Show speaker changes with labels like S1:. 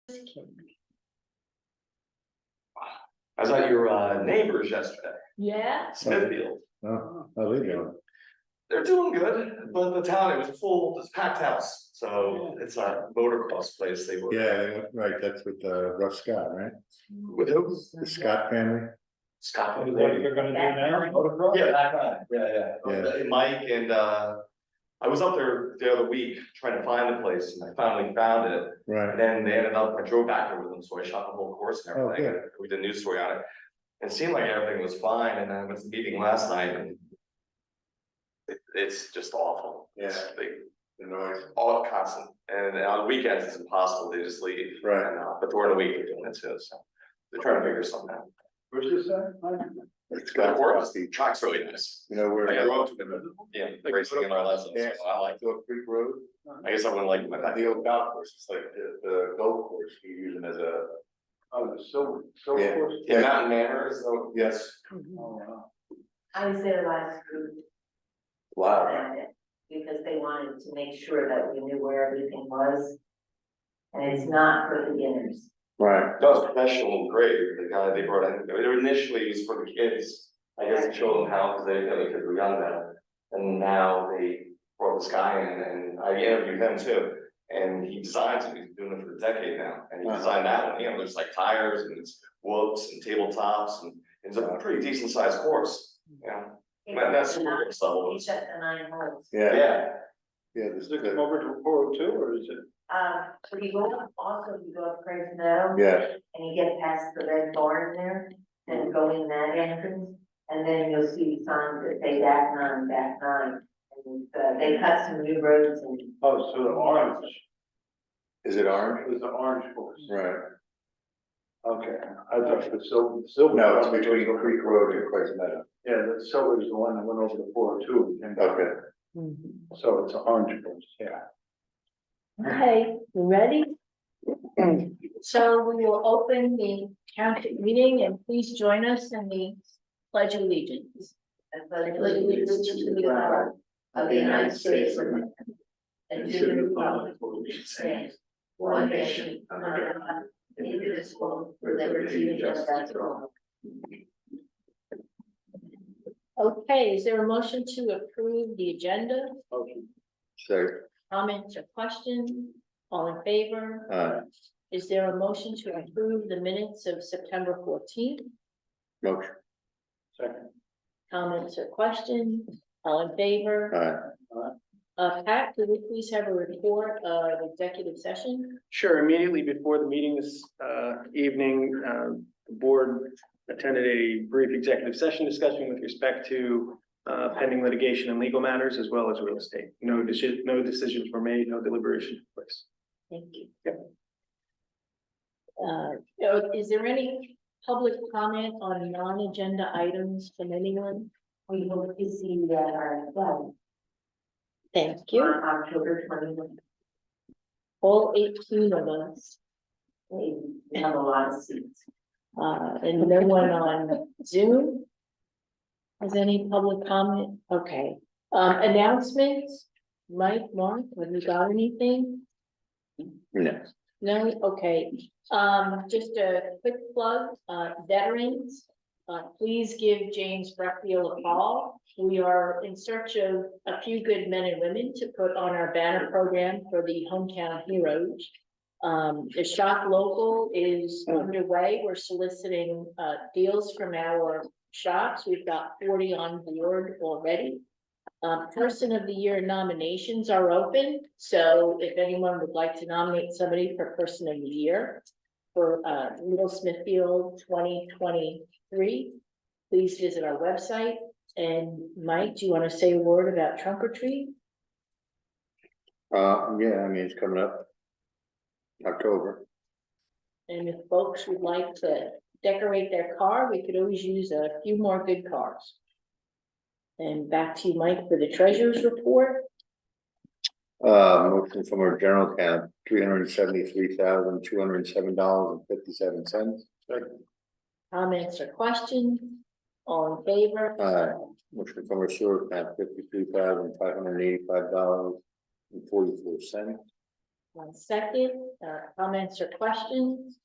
S1: I was at your uh, neighbors yesterday,
S2: Yeah,
S1: Smithfield.
S3: Oh, how they doing?
S1: They're doing good, but the town, it was full, it's packed house. So it's a motocross place. They were.
S3: Yeah, right, that's with uh Russ Scott, right?
S1: With who?
S3: The Scott family,
S1: Scott.
S4: Is that what you're gonna do now? Motocross?
S1: Yeah, that guy, yeah, yeah,
S3: Yeah.
S1: And Mike and uh, I was up there the other week trying to find the place and I finally found it.
S3: right,
S1: And then they ended up, I drove back there with them, so I shot the whole course and
S3: Oh,
S1: everything, we did a news story on it. It seemed like everything was fine, and I was meeting last night and. It, it's just awful. It's They,
S3: The noise.
S1: all constant, and on weekends it's impossible, they just leave.
S3: Right.
S1: And, uh, But during the week they're doing it too, so they're trying to figure something out.
S3: Where's this at?
S1: It's good for us, the track's really nice.
S3: You know where?
S1: Like I grew up to them, yeah, racing in my lessons,
S3: Yeah.
S1: so I like,
S3: Oak Creek Road.
S1: I guess I wouldn't like
S3: Not
S1: my.
S3: the old golf course, it's like the the golf course you use them as a. Oh, the silver, silver course?
S1: Yeah, Mountain Manor is, the-
S3: Yes.
S2: I was there last week
S3: Wow.
S2: around it, because they wanted to make sure that we knew where everything was. And it's not for beginners.
S3: Right.
S1: That was professional and great, the guy they brought in, they were initially it was for the kids, I guess to show them how, because they didn't know they could be young then. And now they brought this guy in and I interviewed him too, and he designs, it. he's been doing it for a decade now, and he
S3: Wow.
S1: designed that one, you know, there's like tires and it's whoops and tabletops and it's a pretty decent sized course, you know, and that's
S2: They
S1: school level.
S2: shut the nine holes.
S3: Yeah,
S1: Yeah,
S3: yeah, there's the-
S4: over to four oh two, or is it?
S2: Um, so you go up, also you go up Craig Meadow
S3: yeah,
S2: and you get past the red barn there and go in that entrance. And then you'll see signs that say back nine, back nine. And uh, they cut some new roads and
S4: Oh, so the orange,
S3: is it orange?
S4: it was the orange course.
S3: Right,
S4: Okay, I thought the silver, silver.
S3: no, it's between Oak Creek Road and Quays Meadow,
S4: Yeah, the silver is the one that went over to four oh two, and
S3: okay.
S4: so it's an orange course, yeah.
S5: Okay, you ready? So we will open the county meeting and please join us in the pledge of allegiance.
S2: athletic allegiance to the flag of the United States of America. And to the republic for which it stands, one nation under God, indivisible, with liberty and justice for all.
S5: Okay, is there a motion to approve the agenda?
S3: So,
S5: Comments or questions? All in favor?
S3: uh,
S5: Is there a motion to approve the minutes of September fourteenth?
S3: motion,
S4: Second,
S5: Comments or questions? All in favor?
S3: uh,
S5: Uh, Pat, could we please have a report of executive session?
S6: Sure, immediately before the meeting this uh, evening, uh, the board attended a brief executive session discussion with respect to uh, pending litigation and legal matters as well as real estate. No decision, no decisions were made, no deliberation took place.
S5: Thank you. Uh, so is there any public comment on non-agenda items from anyone?
S2: We hope to see you at our club
S5: Thank
S2: on
S5: you,
S2: October twenty-one.
S5: all eighteen of us,
S2: We have a lot of seats.
S5: uh, and no one on Zoom. Is any public comment? Okay, um, announcements? Mike, Mark, have you got anything?
S3: no.
S5: No, okay, um, just a quick plug, uh, veterans, uh, please give James Breckfield a call. We are in search of a few good men and women to put on our banner program for the hometown heroes. Um, the shop local is underway, we're soliciting, uh, deals from our shops, we've got forty on board already. Um, person of the year nominations are open, so if anyone would like to nominate somebody for person of the year. For uh Little Smithfield twenty twenty-three, please visit our website. And Mike, do you want to say a word about trunk or treat?
S3: Uh, yeah, I mean, it's coming up. October,
S5: And if folks would like to decorate their car, we could always use a few more good cars. And back to you, Mike, for the treasurer's report.
S3: uh, motion from our general account, three hundred and seventy-three thousand, two hundred and seven dollars and fifty-seven cents.
S5: Comments or questions? All in favor?
S3: Aye. Motion from our sewer account, fifty-three thousand, five hundred and eighty-five dollars and forty-four cents.
S5: One second, uh, comments or questions?